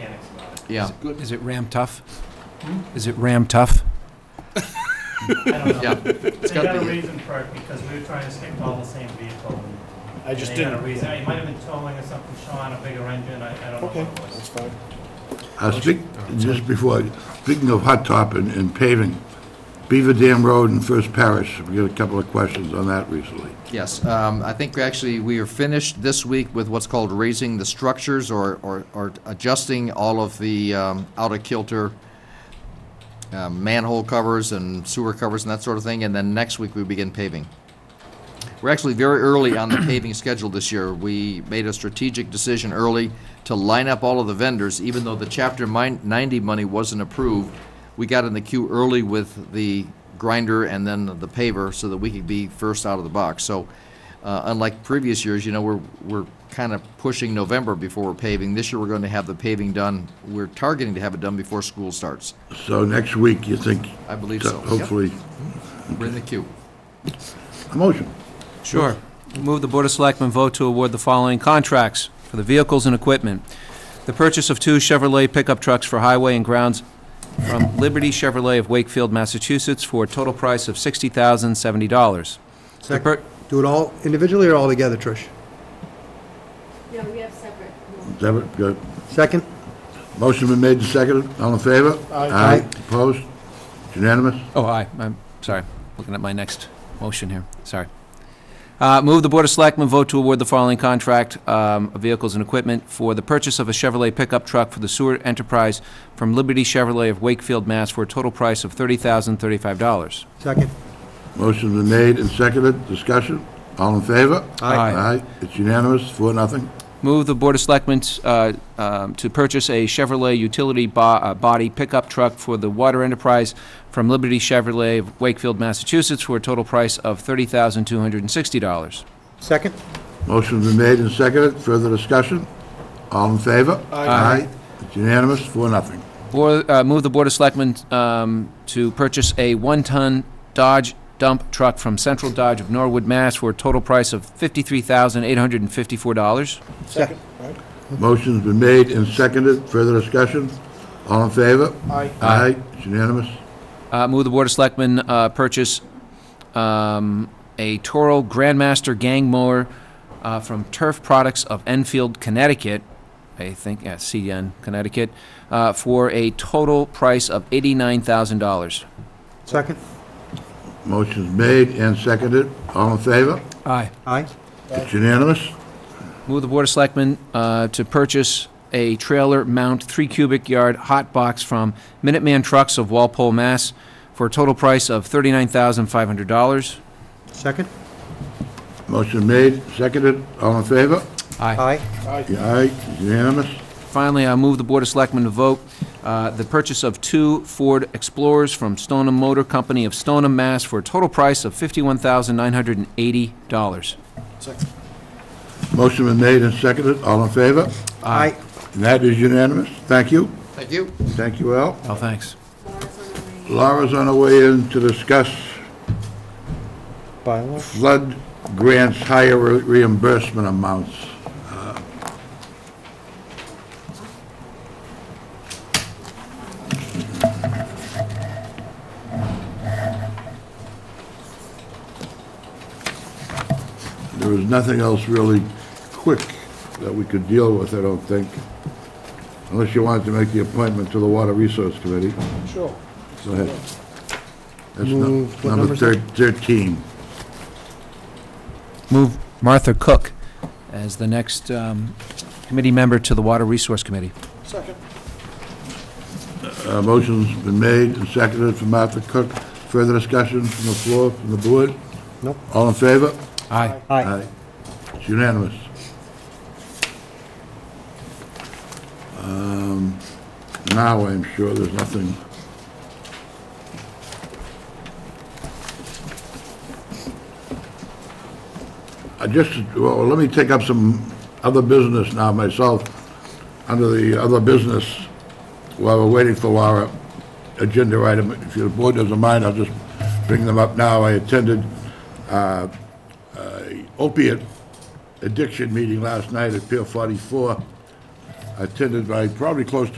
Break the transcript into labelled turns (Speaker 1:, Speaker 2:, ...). Speaker 1: Yeah,
Speaker 2: Good. Is it Ram Tough? Is it Ram Tough?
Speaker 3: I don't
Speaker 1: yeah.
Speaker 3: know.
Speaker 1: It's
Speaker 3: They got
Speaker 1: gotta
Speaker 3: a
Speaker 1: be,
Speaker 3: reason for it because we were trying to stick to all the same vehicle.
Speaker 4: I just
Speaker 3: They got a
Speaker 4: didn't.
Speaker 3: reason. It might have been towing or something, Sean, a bigger engine, I, I don't know
Speaker 4: Okay,
Speaker 3: what it
Speaker 4: that's
Speaker 3: was.
Speaker 4: fine.
Speaker 5: Uh, speak,
Speaker 1: Oh,
Speaker 5: just before, speaking of hot top and, and paving, Beaver Dam Road in First Parish, we got a couple of questions on that recently.
Speaker 1: yes. Um, I think actually we are finished this week with what's called raising the structures or, or, or adjusting all of the, um, out of kilter um, manhole covers and sewer covers and that sort of thing, and then next week we begin paving. We're actually very early on the paving schedule this year. We made a strategic decision early to line up all of the vendors, even though the Chapter min- 90 money wasn't approved. We got in the queue early with the grinder and then the paver so that we could be first out of the box. So uh, unlike previous years, you know, we're, we're kind of pushing November before we're paving. This year, we're going to have the paving done. We're targeting to have it done before school starts.
Speaker 5: So next week, you think?
Speaker 1: I believe so.
Speaker 5: Hopefully,
Speaker 1: We're in the queue.
Speaker 5: a motion.
Speaker 2: Sure. Move the Board of Selectmen vote to award the following contracts for the vehicles and equipment. The purchase of two Chevrolet pickup trucks for highway and grounds from Liberty Chevrolet of Wakefield, Massachusetts, for a total price of $60,070. The
Speaker 6: Second.
Speaker 2: per-
Speaker 6: Do it all individually or all together, Trish?
Speaker 7: No, we have separate.
Speaker 5: Is that what- good?
Speaker 6: Second?
Speaker 5: Motion been made and seconded, all in favor?
Speaker 4: Aye.
Speaker 5: Opposed? Unanimous?
Speaker 2: Oh, aye, I'm sorry, looking at my next motion here, sorry. Uh, Move the Board of Selectmen vote to award the following contract um, of vehicles and equipment for the purchase of a Chevrolet pickup truck for the sewer enterprise from Liberty Chevrolet of Wakefield, Mass. for a total price of $30,035.
Speaker 6: Second?
Speaker 5: Motion been made and seconded, discussion, all in favor?
Speaker 2: Aye. Aye.
Speaker 5: Aye, it's unanimous, four, nothing.
Speaker 2: Move the Board of Selectmen uh, um, to purchase a Chevrolet utility bo- uh, body pickup truck for the water enterprise from Liberty Chevrolet of Wakefield, Massachusetts for a total price of $30,260.
Speaker 6: Second?
Speaker 5: Motion been made and seconded, further discussion, all in favor? Aye. It's unanimous, four, nothing.
Speaker 2: Board, uh, move the Board of Selectmen, um, to purchase a one-ton Dodge dump truck from Central Dodge of Norwood, Mass. for a total price of fifty-three thousand, eight hundred and fifty-four dollars.
Speaker 6: Second.
Speaker 5: Motion's been made and seconded. Further discussion? All in favor?
Speaker 4: Aye.
Speaker 5: Aye. It's unanimous.
Speaker 2: Uh, move the Board of Selectmen, uh, purchase, um, a Toro Grandmaster Gang Mower, uh, from Turf Products of Enfield, Connecticut, I think, yeah, CN, Connecticut, uh, for a total price of eighty-nine thousand dollars.
Speaker 6: Second?
Speaker 5: Motion's made and seconded. All in favor?
Speaker 2: Aye.
Speaker 6: Aye.
Speaker 5: It's unanimous.
Speaker 2: Move the Board of Selectmen uh, to purchase a trailer mount three cubic yard hot box from Minuteman Trucks of Walpole, Mass. for a total price of $39,500.
Speaker 6: Second?
Speaker 5: Motion made, seconded. All in favor?
Speaker 6: Aye.
Speaker 5: Aye. It's unanimous.
Speaker 2: Finally, I move the Board of Selectmen to vote uh, the purchase of two Ford Explorers from Stoneham Motor Company of Stoneham, Mass. for a total price of $51,980.
Speaker 5: Motion been made and seconded. All in favor?
Speaker 6: Aye.
Speaker 5: And that is unanimous. Thank you.
Speaker 1: Thank you.
Speaker 5: Thank you, Al.
Speaker 2: Oh, thanks.
Speaker 7: Laura's on her way.
Speaker 5: Laura's on her way in to discuss
Speaker 6: Bylaw?
Speaker 5: flood grants higher re- reimbursement amounts. Uh, There was nothing else really quick that we could deal with, I don't think, unless you wanted to make the appointment to the Water Resource Committee.
Speaker 4: Sure.
Speaker 5: Go ahead. That's
Speaker 6: Move-
Speaker 5: num-
Speaker 6: what number
Speaker 5: number
Speaker 6: is that?
Speaker 5: thir- 13.
Speaker 2: Move Martha Cook as the next um, committee member to the Water Resource Committee.
Speaker 4: Second.
Speaker 5: Uh, Motion's been made and seconded for Martha Cook. Further discussion from the floor, from the board?
Speaker 6: Nope.
Speaker 5: All in favor?
Speaker 2: Aye.
Speaker 6: Aye.
Speaker 5: It's unanimous. Um, Now, I'm sure there's nothing. I just, well, let me take up some other business now myself, under the other business, while we're waiting for Laura, agenda item. If the board doesn't mind, I'll just bring them up now. I attended opiate addiction meeting last night at Pier 44, attended by probably close to